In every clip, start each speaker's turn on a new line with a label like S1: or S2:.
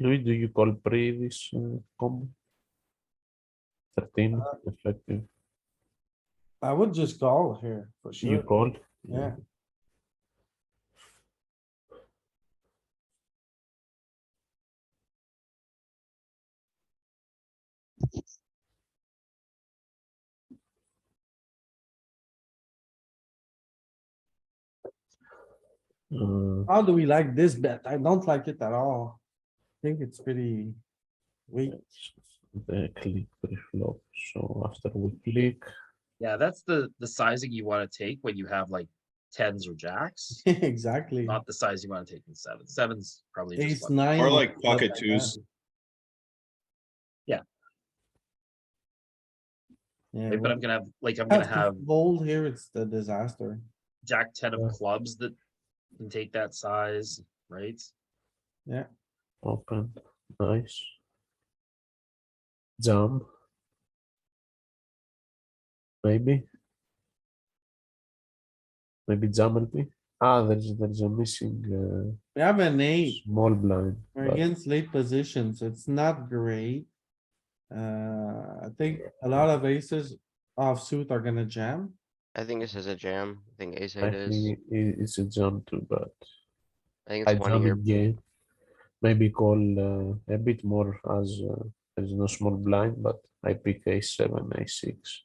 S1: Louis, do you call pre this uh, combo? Thirteen
S2: Ah.
S1: effective.
S2: I would just call here for
S1: You
S2: sure.
S1: call?
S2: Yeah.
S1: Uh,
S2: How do we like this bet? I don't like it at all. I think it's pretty weak.
S1: the click pre-flop, so after we click,
S3: Yeah, that's the, the sizing you wanna take when you have like tens or jacks,
S2: Exactly.
S3: not the size you wanna take in seven. Sevens probably just
S2: Ace
S3: like,
S2: nine.
S4: Or like
S2: stuff
S4: pocket
S2: that.
S4: twos.
S3: Yeah.
S2: Yeah.
S3: but I'm
S2: when
S3: gonna have, like, I'm
S2: you
S3: gonna have
S2: to Fold here, it's the disaster.
S3: jack ten of
S1: Yeah.
S3: clubs that can take that size, right?
S1: open, nice. Jump. Maybe. Maybe jump LP. Ah, there's, there's a missing, uh,
S2: We have an eight.
S1: small blind.
S2: We're
S1: but-
S2: against late positions. It's not great. Uh, I think a lot of aces offsuit are gonna jam.
S5: I think this is a jam. I think ace
S1: I
S5: eight is.
S1: think it- it's a jump too, but
S5: I think
S1: I
S5: it's one of
S1: jump
S5: your.
S1: it game. Maybe call uh, a bit more as uh, there's no small blind, but I pick a seven, a six.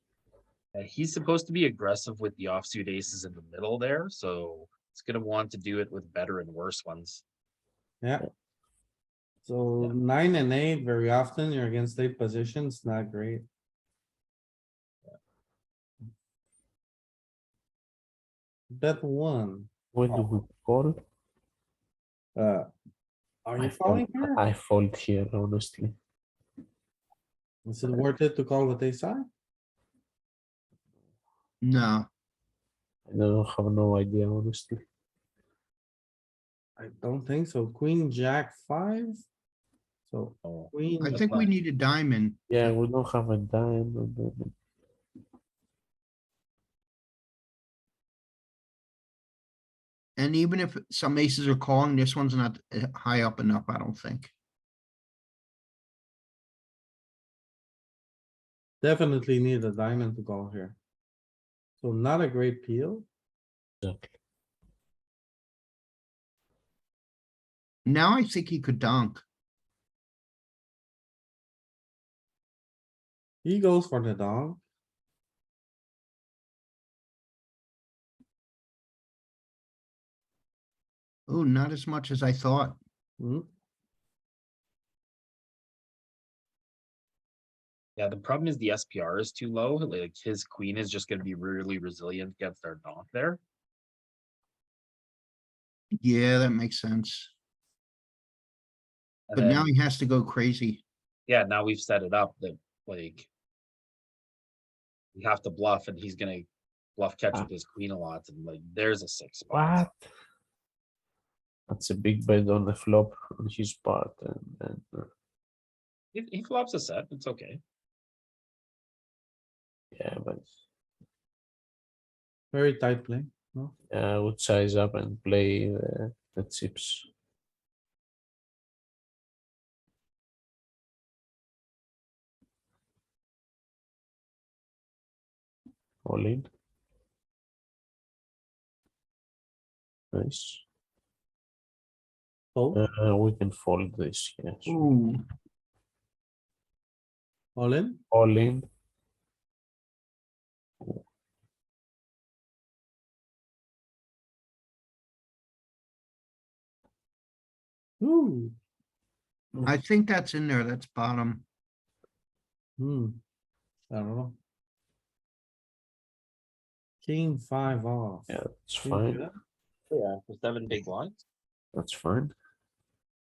S3: And he's supposed to be aggressive with the offsuit aces in the middle there, so it's gonna want to do it with better and worse ones.
S2: So nine and eight, very often you're against late positions, not great. Bet one,
S1: When do we call?
S2: uh, are
S1: I
S2: you
S1: fold,
S2: falling here?
S1: I fold here, honestly.
S2: Is it worth it to call with ace high?
S6: No,
S1: I don't have no idea, honestly.
S2: I don't think so. Queen, jack, five. So
S3: Oh,
S2: queen,
S6: I
S3: That's
S6: think we
S3: fine.
S6: need a diamond.
S1: Yeah, we don't have a dime. and then-
S6: And even if some aces are calling, this one's not uh, high up enough, I don't think.
S2: definitely need a diamond to call here. So not a great peel.
S1: Exactly.
S6: Now I think he could dunk.
S2: He goes for the dog.
S6: Oh, not as much as I thought.
S2: Hmm,
S3: Yeah, the problem is the SPR is too low, like his queen is just gonna be really resilient against our donk there.
S6: Yeah, that makes sense.
S3: And
S6: But now
S3: then-
S6: he has to go crazy.
S3: yeah, now we've set it up that like. We have to bluff and he's gonna bluff catch
S1: Ah.
S3: with his queen a lot and like there's a six spot.
S1: What? That's a big bet on the flop on his part, and then uh,
S3: He, he flops a set, it's okay.
S1: yeah, but
S2: Very tight play.
S1: yeah, I uh, would size up and play uh, the chips. All in. Nice.
S2: Fold,
S1: Uh, we can fold this, yes.
S6: Ooh,
S2: all in.
S1: All in.
S2: Ooh,
S6: I think that's in there. That's bottom.
S2: hmm. I don't know. King five off.
S1: Yeah, that's
S2: Can you do
S1: fine.
S2: that?
S3: Yeah. For seven big blinds.
S1: That's fine.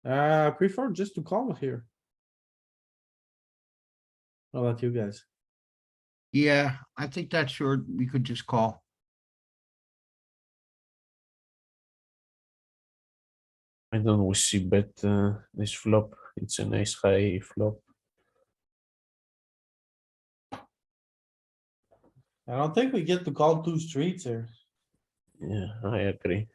S2: Uh, I prefer just to call here. How about you guys?
S6: Yeah, I think that's your, we could just call.
S1: I don't we see bet uh, this flop. It's a nice high flop.
S2: I don't think we get to call two streets here.
S1: Yeah, I agree.